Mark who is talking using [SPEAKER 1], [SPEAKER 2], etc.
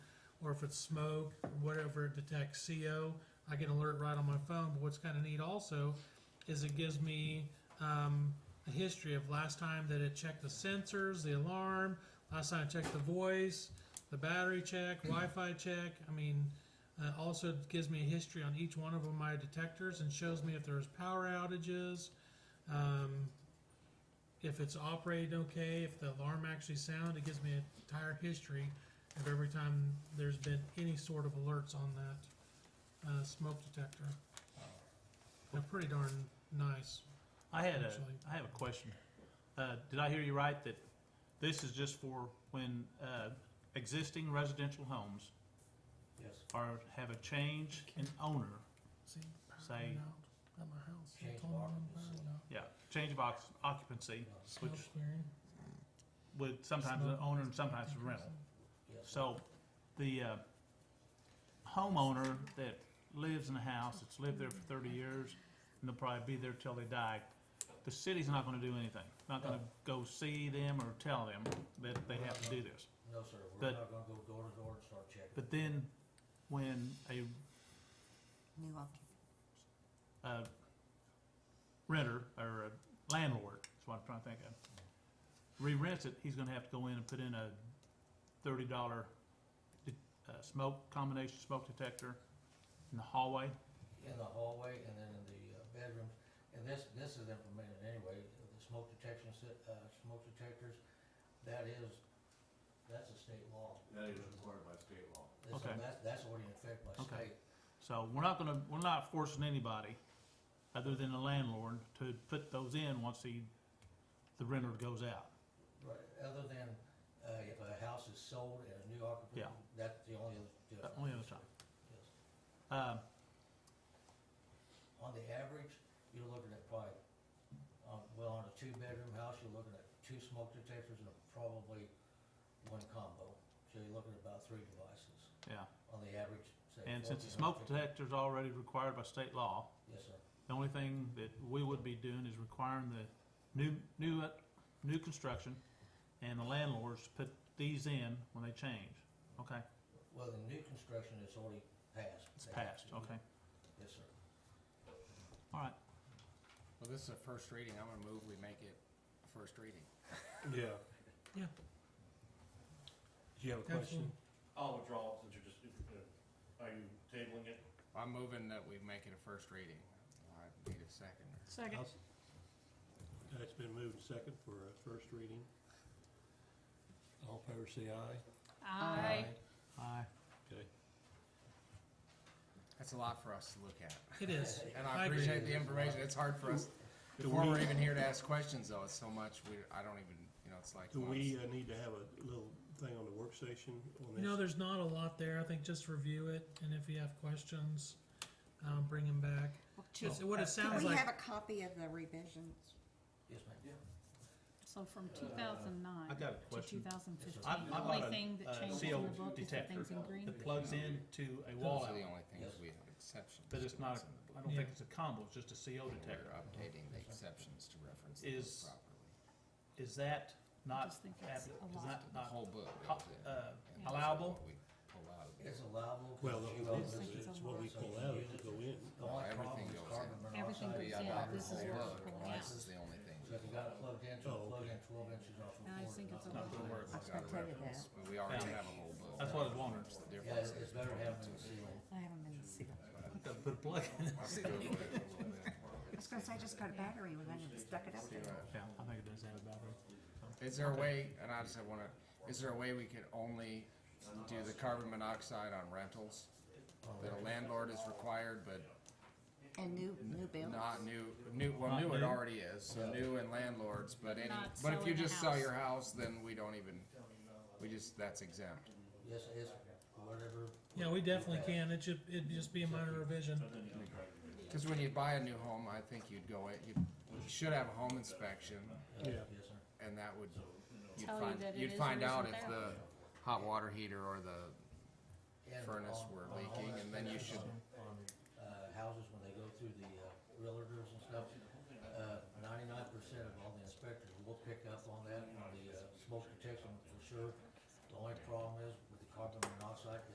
[SPEAKER 1] or if it's smoke, whatever it detects CO, I get an alert right on my phone. But what's kind of neat also is it gives me um, a history of last time that it checked the sensors, the alarm, last time I checked the voice, the battery check, Wi-Fi check. I mean, uh, also it gives me a history on each one of my detectors and shows me if there's power outages. Um, if it's operating okay, if the alarm actually sounded, it gives me an entire history of every time there's been any sort of alerts on that uh, smoke detector. They're pretty darn nice.
[SPEAKER 2] I had a,
[SPEAKER 1] Actually.
[SPEAKER 2] I have a question. Uh, did I hear you right that this is just for when, uh, existing residential homes
[SPEAKER 3] Yes.
[SPEAKER 2] are, have a change in owner?
[SPEAKER 1] See, power
[SPEAKER 2] Say-
[SPEAKER 1] went out at my house. They
[SPEAKER 3] Change
[SPEAKER 1] told me
[SPEAKER 3] of
[SPEAKER 1] when
[SPEAKER 3] occupancy.
[SPEAKER 1] power went out.
[SPEAKER 2] Yeah, change of oc- occupancy
[SPEAKER 1] Smoke
[SPEAKER 2] Which-
[SPEAKER 1] clearing.
[SPEAKER 2] with sometimes an
[SPEAKER 1] Smoke.
[SPEAKER 2] owner and sometimes a rental.
[SPEAKER 3] Yes.
[SPEAKER 2] So the, uh, homeowner that lives in a house, that's lived there for thirty years, and they'll probably be there till they die, the city's not gonna do anything. Not gonna go see them or tell them that they have to do this.
[SPEAKER 3] No, sir, we're
[SPEAKER 2] But-
[SPEAKER 3] not gonna go door to door and start checking.
[SPEAKER 2] But then, when a,
[SPEAKER 4] New occupant.
[SPEAKER 2] a renter or a landlord, that's what I'm trying to think of, re-rents it, he's gonna have to go in and put in a thirty dollar uh, smoke, combination smoke detector in the hallway.
[SPEAKER 3] In the hallway and then in the uh, bedrooms, and this, this is implemented anyway, the smoke detection, si- uh, smoke detectors, that is, that's a state law.
[SPEAKER 5] That is required by state law.
[SPEAKER 3] That's-
[SPEAKER 2] Okay.
[SPEAKER 3] That's, that's already in effect by
[SPEAKER 2] Okay.
[SPEAKER 3] state.
[SPEAKER 2] So we're not gonna, we're not forcing anybody, other than the landlord, to put those in once he, the renter goes out.
[SPEAKER 3] Right, other than, uh, if a house is sold and a new occupant,
[SPEAKER 2] Yeah.
[SPEAKER 3] that's the only other difference.
[SPEAKER 2] only other time.
[SPEAKER 3] Yes.
[SPEAKER 2] Um,
[SPEAKER 3] On the average, you're looking at probably, um, well, on a two-bedroom house, you're looking at two smoke detectors and probably one combo. So you're looking at about three devices
[SPEAKER 2] yeah,
[SPEAKER 3] on the average, say.
[SPEAKER 2] and since the
[SPEAKER 3] 1400.
[SPEAKER 2] smoke detector's already required by state law,
[SPEAKER 3] Yes, sir.
[SPEAKER 2] The only thing that we would be doing is requiring the new, new, new construction and the landlords to put these in when they change. Okay,
[SPEAKER 3] Well, the new construction is already passed.
[SPEAKER 2] it's passed, okay,
[SPEAKER 3] Yes, sir.
[SPEAKER 2] all right.
[SPEAKER 6] Well, this is a first reading, I'm gonna move we make it a first reading.
[SPEAKER 5] Yeah.
[SPEAKER 1] Yeah.
[SPEAKER 5] Do you have
[SPEAKER 1] Absolutely.
[SPEAKER 5] I'll withdraw since you're just, uh, are you tabling it?
[SPEAKER 6] I'm moving that we make it a first reading. I need a second.
[SPEAKER 4] Second.
[SPEAKER 7] Uh, It's been moved and second for a first reading. All in favor say aye.
[SPEAKER 2] Oh.
[SPEAKER 4] Aye.
[SPEAKER 2] Aye.
[SPEAKER 7] Okay.
[SPEAKER 6] That's a lot for us to look at.
[SPEAKER 1] It is.
[SPEAKER 6] And
[SPEAKER 1] I
[SPEAKER 6] I
[SPEAKER 1] agree.
[SPEAKER 6] appreciate the information, it's hard for us,
[SPEAKER 7] Do
[SPEAKER 6] before we're
[SPEAKER 7] we-
[SPEAKER 6] even here to ask questions though, it's so much, we, I don't even, you know, it's like.
[SPEAKER 7] Do
[SPEAKER 6] well,
[SPEAKER 7] we
[SPEAKER 6] it's-
[SPEAKER 7] uh, need to have a little thing on the work station on this?
[SPEAKER 1] You know, there's not a lot there. I think just review it, and if you have questions, um, bring them back. It's,
[SPEAKER 2] Oh.
[SPEAKER 1] what it
[SPEAKER 4] Can
[SPEAKER 1] sounds
[SPEAKER 4] Uh, we
[SPEAKER 1] like.
[SPEAKER 4] have a copy of the revisions?
[SPEAKER 3] Yes, ma'am.
[SPEAKER 8] So from
[SPEAKER 3] Uh,
[SPEAKER 8] two thousand
[SPEAKER 2] I
[SPEAKER 8] nine
[SPEAKER 2] got a
[SPEAKER 8] to two
[SPEAKER 2] question.
[SPEAKER 8] thousand fifteen,
[SPEAKER 2] I- I
[SPEAKER 8] the
[SPEAKER 2] bought
[SPEAKER 8] only
[SPEAKER 2] a,
[SPEAKER 8] thing
[SPEAKER 2] uh,
[SPEAKER 8] that changes in the
[SPEAKER 2] CO
[SPEAKER 8] book is the
[SPEAKER 2] detector.
[SPEAKER 8] things in green.
[SPEAKER 2] It plugs into a
[SPEAKER 6] Those
[SPEAKER 2] wall
[SPEAKER 6] are the
[SPEAKER 2] outlet,
[SPEAKER 6] only things we have exceptions.
[SPEAKER 2] but it's
[SPEAKER 6] to
[SPEAKER 2] not,
[SPEAKER 6] what's in
[SPEAKER 2] a-
[SPEAKER 6] the
[SPEAKER 2] I
[SPEAKER 6] book.
[SPEAKER 2] don't think it's a combo, it's just a CO
[SPEAKER 6] We're
[SPEAKER 2] detector.
[SPEAKER 6] updating the exceptions to reference the
[SPEAKER 2] Is-
[SPEAKER 6] book properly.
[SPEAKER 2] Is that
[SPEAKER 8] I
[SPEAKER 2] not,
[SPEAKER 8] just think
[SPEAKER 2] ab-
[SPEAKER 8] it's
[SPEAKER 2] is
[SPEAKER 8] a lot.
[SPEAKER 2] that
[SPEAKER 6] The
[SPEAKER 2] not,
[SPEAKER 6] whole book
[SPEAKER 2] co-
[SPEAKER 6] goes in.
[SPEAKER 2] uh,
[SPEAKER 6] and those are
[SPEAKER 2] allowable?
[SPEAKER 6] what we pull out of the
[SPEAKER 3] It's
[SPEAKER 6] book.
[SPEAKER 3] allowable.
[SPEAKER 7] Well,
[SPEAKER 3] because
[SPEAKER 7] the-
[SPEAKER 3] you
[SPEAKER 8] I
[SPEAKER 3] own
[SPEAKER 8] just
[SPEAKER 3] this.
[SPEAKER 8] think
[SPEAKER 7] it's
[SPEAKER 8] it's a
[SPEAKER 7] what we
[SPEAKER 8] lot.
[SPEAKER 7] pull out if we go in.
[SPEAKER 3] The only
[SPEAKER 6] Well,
[SPEAKER 3] problem
[SPEAKER 6] everything
[SPEAKER 3] is
[SPEAKER 6] goes
[SPEAKER 3] carbon
[SPEAKER 6] in.
[SPEAKER 8] Everything
[SPEAKER 3] monoxide.
[SPEAKER 8] goes
[SPEAKER 6] We
[SPEAKER 8] Yeah, in.
[SPEAKER 6] adopt the
[SPEAKER 8] this is
[SPEAKER 6] whole book,
[SPEAKER 8] what we're pulling
[SPEAKER 6] this
[SPEAKER 8] out.
[SPEAKER 6] is the only thing.
[SPEAKER 3] So if you got it plugged into,
[SPEAKER 7] Oh,
[SPEAKER 3] plug
[SPEAKER 7] okay.
[SPEAKER 3] in twelve inches off of
[SPEAKER 8] I
[SPEAKER 3] cord.
[SPEAKER 8] think it's a
[SPEAKER 3] not-
[SPEAKER 8] lot.
[SPEAKER 2] don't worry
[SPEAKER 4] I
[SPEAKER 2] about
[SPEAKER 4] was
[SPEAKER 2] it.
[SPEAKER 4] gonna tell you that.
[SPEAKER 6] But we already
[SPEAKER 2] Yeah.
[SPEAKER 6] have a whole book.
[SPEAKER 2] That's what I was wondering.
[SPEAKER 3] Yeah,
[SPEAKER 6] The difference
[SPEAKER 3] it's,
[SPEAKER 6] is
[SPEAKER 3] it's better
[SPEAKER 6] between
[SPEAKER 3] having it
[SPEAKER 6] the two.
[SPEAKER 3] sealed.
[SPEAKER 4] I haven't been to see them.
[SPEAKER 2] Gotta put a plug in it.
[SPEAKER 6] I'll see what it
[SPEAKER 4] I was gonna say, I just got a battery when I stuck it up there.
[SPEAKER 6] is.
[SPEAKER 2] Yeah, I think it does have a battery.
[SPEAKER 6] Is there a way, and I just have one, other- is there a way we could only do the carbon monoxide on rentals? That a landlord is required, but
[SPEAKER 4] And new, new build.
[SPEAKER 6] not new, new, well,
[SPEAKER 2] Not
[SPEAKER 6] new it
[SPEAKER 2] new?
[SPEAKER 6] already is, so new and landlords, but any,
[SPEAKER 8] Not
[SPEAKER 6] but if you
[SPEAKER 8] selling the
[SPEAKER 6] just sell
[SPEAKER 8] house.
[SPEAKER 6] your house, then we don't even, we just, that's exempt.
[SPEAKER 3] Yes, it's whatever.
[SPEAKER 1] Yeah, we definitely can. It should, it'd just be a minor revision.
[SPEAKER 6] Cause when you buy a new home, I think you'd go, in- you you should have a home inspection,
[SPEAKER 3] Yeah.
[SPEAKER 7] Yeah.
[SPEAKER 3] Yes, sir.
[SPEAKER 6] and that would, you'd
[SPEAKER 8] Tell you
[SPEAKER 6] find,
[SPEAKER 8] that it
[SPEAKER 6] you'd
[SPEAKER 8] is or
[SPEAKER 6] find out
[SPEAKER 8] isn't
[SPEAKER 6] if
[SPEAKER 8] there.
[SPEAKER 6] the hot water heater or the
[SPEAKER 3] And
[SPEAKER 6] furnace
[SPEAKER 3] on-
[SPEAKER 6] were
[SPEAKER 3] on all
[SPEAKER 6] leaking,
[SPEAKER 3] that
[SPEAKER 6] and then you
[SPEAKER 3] stuff,
[SPEAKER 6] should-
[SPEAKER 3] On, uh, houses, when they go through the, uh, realtors and stuff, uh, ninety-nine percent of all the inspectors will pick up on that, on the, uh, smoke detection for sure. The only problem is with the carbon monoxide,